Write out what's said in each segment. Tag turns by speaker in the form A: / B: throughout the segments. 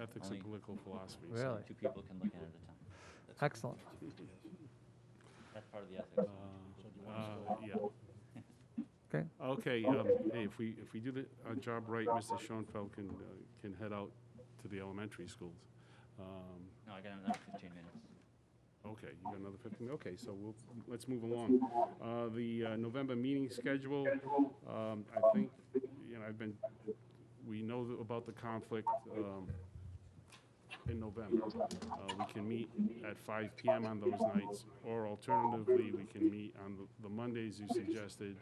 A: ethics
B: Only-
A: and political philosophy. so,
C: Really?
B: Two people can look at it at a time.
C: Excellent.
B: That's part of the ethics.
A: uh, uh, Yeah.
C: Okay.
A: Okay, um, hey, if we, if we do the, our job right, Mr. Schoenfeld can, uh, can head out to the elementary schools. Um,
B: No, I got another 15 minutes.
A: Okay, you got another 15, okay, so we'll, let's move along. Uh, The uh, November meeting schedule, um, I think, you know, I've been, we know th- about the conflict um, in November. Uh, We can meet at 5 PM on those nights, or alternatively, we can meet on the- the Mondays you suggested,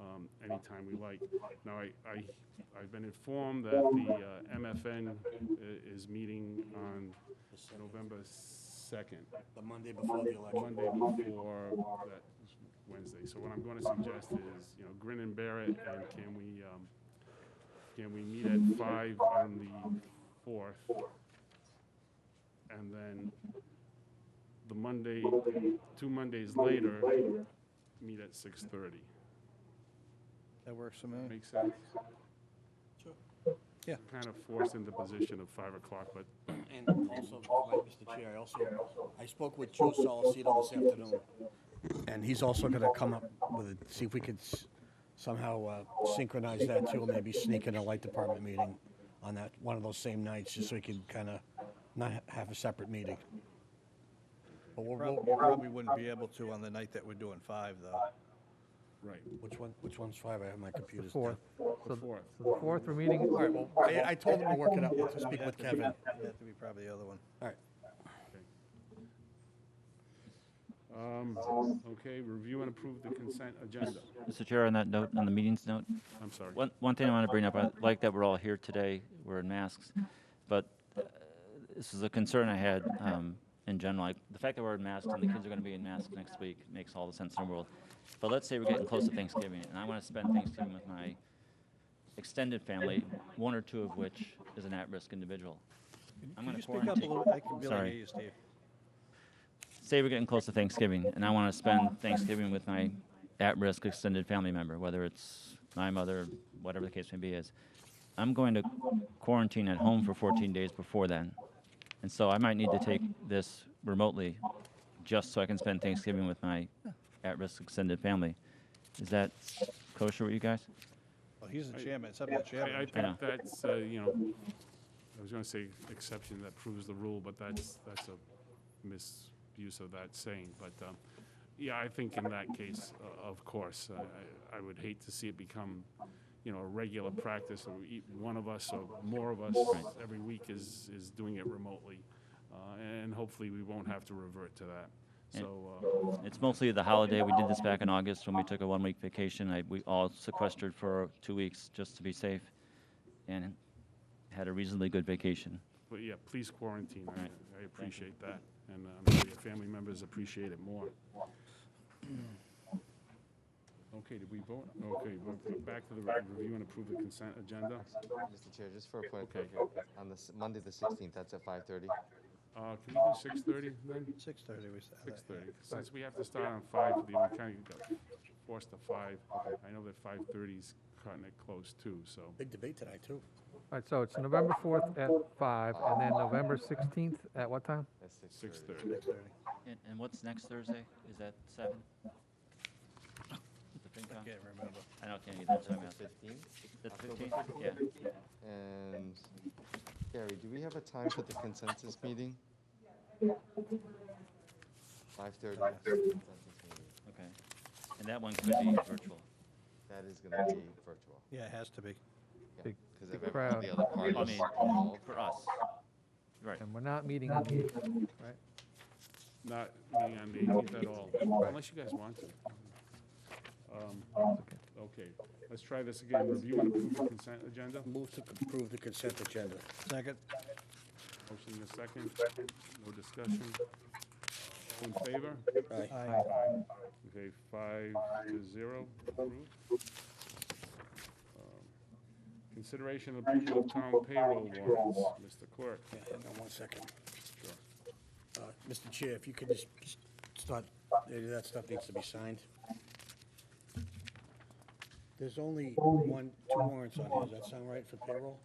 A: um, anytime we like. Now, I, I, I've been informed that the uh, MFN i- uh, is meeting on November 2nd.
D: The Monday before the election.
A: Monday before that Wednesday. So what I'm going to suggest is, you know, grin and bear it, and can we, um, can we meet at five on the fourth? And then the Monday, two Mondays later, meet at six thirty.
E: That works for me.
A: Make sense?
D: Sure.
E: Yeah.
A: Kind of forced into position of five o'clock, but
D: And also, like, Mr. Chair, I also, I spoke with Joe Solicito this afternoon, and he's also gonna come up with, it. see if we could s- somehow uh, synchronize that too, maybe sneak in a light department meeting on that, one of those same nights, just so we can kinda not ha- have a separate meeting. But we'll,
E: Probably,
D: we'll-
E: probably wouldn't be able to on the night that we're doing five, though.
A: right,
D: which one, which one's five? I have my computer's down.
C: Fourth.
A: the
C: So
A: fourth.
C: so the fourth, we're meeting.
D: All right, well, I, I told him to work it out, let's speak with Kevin. All
E: It'd have to be probably the other one.
D: right.
A: Um, Okay, review and approve the consent agenda.
B: Mr. Chair, on that note, on the meetings note,
A: I'm sorry.
B: one, one thing I want to bring up, I like that we're all here today, we're in masks, but uh, this is a concern I had um, in general. Like, the fact that we're in masks and the kids are going to be in masks next week makes all the sense in the world. But let's say we're getting close to Thanksgiving, and I want to spend Thanksgiving with my extended family, one or two of which is an at-risk individual. I'm
E: Could
B: gonna
E: you speak up a
B: quarantine.
E: little? I can barely
B: Sorry.
E: hear you, Steve.
B: say we're getting close to Thanksgiving, and I want to spend Thanksgiving with my at-risk extended family member, whether it's my mother, whatever the case may be, is I'm going to quarantine at home for 14 days before then, and so I might need to take this remotely, just so I can spend Thanksgiving with my at-risk extended family. Is that kosher with you guys?
E: Well, Oh, he's the chairman. It's up to
A: I,
E: the
A: I
E: chairman.
B: Yeah.
A: think that's, uh, you know, I was gonna say exception that proves the rule, but that's, that's a misuse of that saying, but, um, yeah, I think in that case, uh, of course, I, I I would hate to see it become, you know, a regular practice, or e- one of us or more of us every week is, is doing it remotely, uh, and hopefully we won't have to revert to that, so, uh,
B: It's mostly the holiday. We did this back in August when we took a one-week vacation. I, we all sequestered for two weeks just to be safe, and had a reasonably good vacation.
A: but yeah, please quarantine,
B: right.
A: I, I appreciate that, and I'm sure your family members appreciate it more. Okay, did we vote? Okay, we're we're back to the re- review and approve the consent agenda.
F: Mr. Chair, just for a point of
A: Okay.
F: pleasure, on the s- Monday, the 16th, that's at 5:30.
A: Uh, can we do six thirty then?
E: Six thirty, we said.
A: Six thirty, since we have to start on five, we kind of got forced to five. I know that five thirty's cutting it close too, so.
D: Big debate tonight, too.
C: All right, so it's November 4th at 5, and then November 16th at what time?
F: That's 6:30.
A: Six thirty.
E: Six thirty.
B: And, and what's next Thursday? Is that seven? The
E: I
B: FinCon?
E: can't remember.
B: I don't, can't get that time out.
F: The 15th.
B: The
F: October
B: 15th? Yeah.
F: And Gary, do we have a time for the consensus meeting? 5:30. consensus meeting.
B: Okay. And that one could be virtual.
F: That is going to be virtual.
E: Yeah, it has to be.
C: Big-
F: Because
C: big
F: of every- all
C: crowd.
F: the other
B: I
F: parties
B: mean,
F: involved.
B: for us. Right.
C: And we're not meeting on the 8th, right?
A: Not being on the eighteenth at all, unless you guys want to. Um,
C: Okay.
A: Okay, let's try this again. Review and approve the consent agenda.
D: Move to approve the consent agenda.
E: Second,
A: Motion in a second. No discussion. All in favor?
D: Aye.
E: aye.
A: Okay, five to zero, approved. Um, Consideration and approval of town payroll warrants, Mr. Clerk.
D: Yeah, Hang on one second.
A: Sure.
D: Uh, Mr. Chair, if you could just just start, maybe that stuff needs to be signed. There's only one, two warrants on here, does that sound right for payroll?